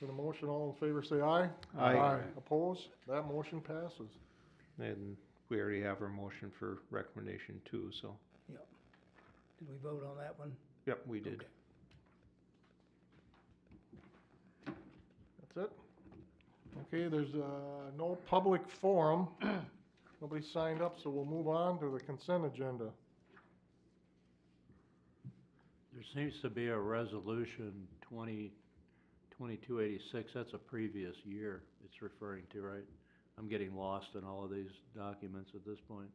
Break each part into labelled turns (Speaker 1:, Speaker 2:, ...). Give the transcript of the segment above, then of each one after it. Speaker 1: Been a motion, all in favor, say aye.
Speaker 2: Aye.
Speaker 1: Opposed? That motion passes.
Speaker 2: And we already have our motion for recommendation two, so,
Speaker 3: Yep. Did we vote on that one?
Speaker 2: yep, we did.
Speaker 1: That's it? Okay, there's, uh, no public forum. Nobody signed up, so we'll move on to the consent agenda.
Speaker 4: There seems to be a resolution twenty, twenty-two eighty-six, that's a previous year it's referring to, right? I'm getting lost in all of these documents at this point.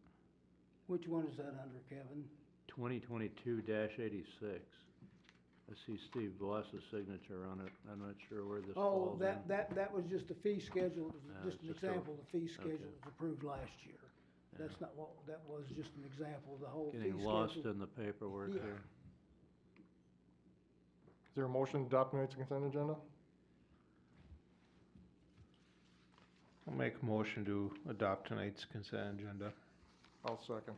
Speaker 3: Which one is that under, Kevin?
Speaker 4: Twenty twenty-two eighty-six. I see Steve Voss's signature on it, I'm not sure where this
Speaker 3: Oh,
Speaker 4: falls in.
Speaker 3: that, that, that was just the fee schedule, It was
Speaker 4: Yeah,
Speaker 3: just an
Speaker 4: just a-
Speaker 3: example, of the fee schedule
Speaker 4: okay.
Speaker 3: was approved last year.
Speaker 4: Yeah.
Speaker 3: That's not what, that was just an example, of the whole fee schedule.
Speaker 4: Getting lost in the paperwork
Speaker 3: Yeah.
Speaker 4: here.
Speaker 1: Is there a motion to adopt tonight's consent agenda?
Speaker 2: I'll make a motion to adopt tonight's consent agenda.
Speaker 1: I'll second.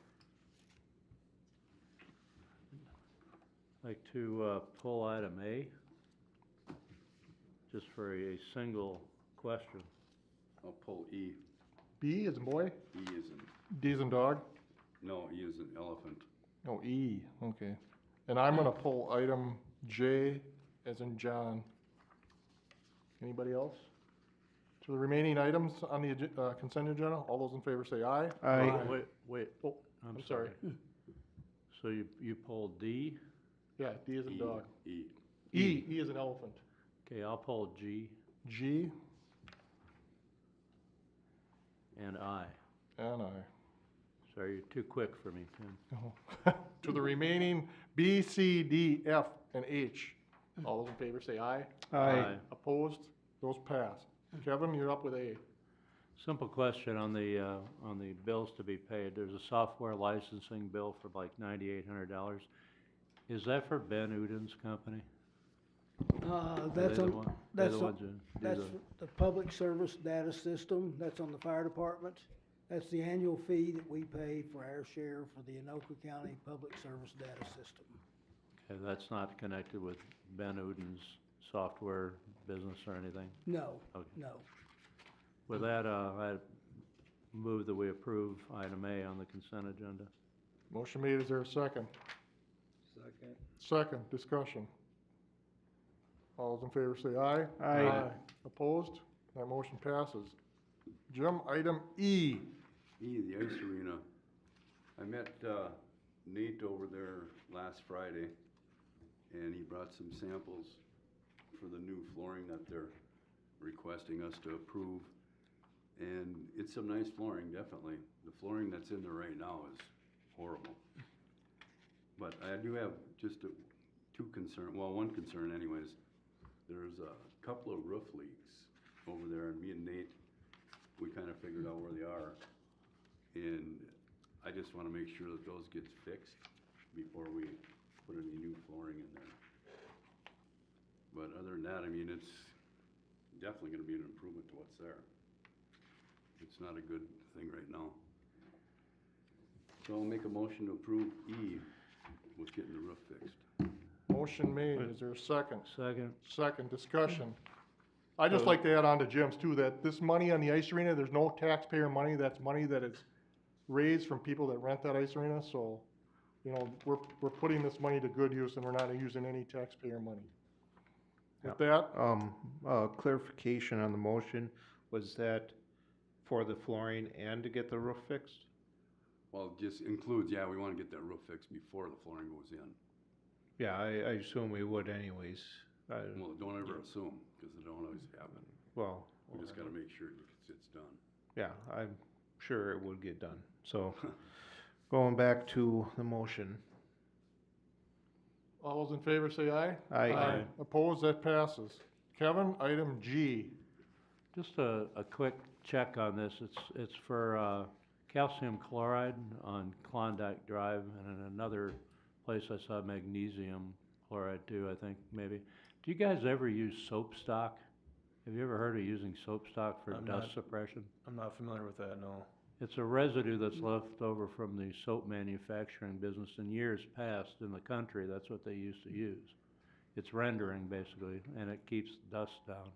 Speaker 4: Like to, uh, pull item A, just for a single question.
Speaker 5: I'll pull E.
Speaker 1: B is in boy,
Speaker 5: E is in,
Speaker 1: D is in dog.
Speaker 5: no, E is an elephant.
Speaker 1: Oh, E, okay. And I'm gonna pull item J as in John. Anybody else? To the remaining items on the agen- uh, consent agenda, all those in favor say aye.
Speaker 2: Aye.
Speaker 4: Oh, Wait, wait,
Speaker 1: Oh,
Speaker 4: I'm
Speaker 1: I'm sorry.
Speaker 4: sorry. So you, you pulled D?
Speaker 1: Yeah, D is in
Speaker 5: E.
Speaker 1: dog.
Speaker 5: E.
Speaker 1: E, E is an elephant.
Speaker 4: Okay, I'll pull G
Speaker 1: G
Speaker 4: and I.
Speaker 1: and I.
Speaker 4: Sorry, you're too quick for me, Tim.
Speaker 1: Oh. To the remaining B, C, D, F, and H. All those in favor say aye.
Speaker 4: Aye.
Speaker 1: Opposed? Hmm. Those pass. Kevin, you're up with A.
Speaker 4: Simple question on the, uh, on the bills to be paid. There's a software licensing bill for like ninety-eight hundred dollars. Is that for Ben Uden's company?
Speaker 3: Uh,
Speaker 4: Are they
Speaker 3: that's
Speaker 4: the
Speaker 3: on,
Speaker 4: one- they're
Speaker 3: that's
Speaker 4: the
Speaker 3: on,
Speaker 4: ones that do
Speaker 3: That's
Speaker 4: the-
Speaker 3: the public service data system, that's on the fire department. That's the annual fee that we pay for our share for the Anoka County Public Service Data System.
Speaker 4: Okay, that's not connected with Ben Uden's software business or anything?
Speaker 3: No,
Speaker 4: Okay.
Speaker 3: no.
Speaker 4: With that, uh, I move that we approve item A on the consent agenda.
Speaker 1: Motion made, is there a second?
Speaker 5: Second.
Speaker 1: Second, discussion. All those in favor say aye.
Speaker 2: Aye.
Speaker 1: Opposed? That motion passes. Jim, item E.
Speaker 5: E, the ice arena. I met, uh, Nate over there last Friday, and he brought some samples for the new flooring that they're requesting us to approve. And it's some nice flooring, definitely. The flooring that's in there right now is horrible. But I do have just a- two concern, well, one concern anyways. There's a couple of roof leaks over there, and me and Nate, we kind of figured out where they are. And I just want to make sure that those gets fixed before we put any new flooring in there. But other than that, I mean, it's definitely going to be an improvement to what's there. It's not a good thing right now. So I'll make a motion to approve E with getting the roof fixed.
Speaker 1: Motion made, is there a second?
Speaker 4: Second,
Speaker 1: Second, discussion. I'd just like to add on to Jim's too, that this money on the ice arena, there's no taxpayer money, that's money that is raised from people that rent that ice arena, so, you know, we're, we're putting this money to good use and we're not using any taxpayer money. With that,
Speaker 2: Um, uh, clarification on the motion, was that for the flooring and to get the roof fixed?
Speaker 5: Well, it just includes, yeah, we want to get that roof fixed before the flooring goes in.
Speaker 2: Yeah, I, I assume we would anyways. I,
Speaker 5: Well, don't ever assume, because it don't always happen.
Speaker 2: well,
Speaker 5: We just got to make sure it's, it's done.
Speaker 2: yeah, I'm sure it would get done. So, going back to the motion,
Speaker 1: all those in favor say aye.
Speaker 2: Aye. Aye.
Speaker 1: Opposed, that passes. Kevin, item G.
Speaker 4: Just a, a quick check on this, it's, it's for, uh, calcium chloride on Klondike Drive, and in another place I saw magnesium chloride too, I think, maybe. Do you guys ever use soap stock? Have you ever heard of using soap stock for
Speaker 6: I'm
Speaker 4: dust
Speaker 6: not.
Speaker 4: suppression?
Speaker 6: I'm not familiar with that, no.
Speaker 4: It's a residue that's left over from the soap manufacturing business in years past in the country, that's what they used to use. It's rendering basically, and it keeps dust down.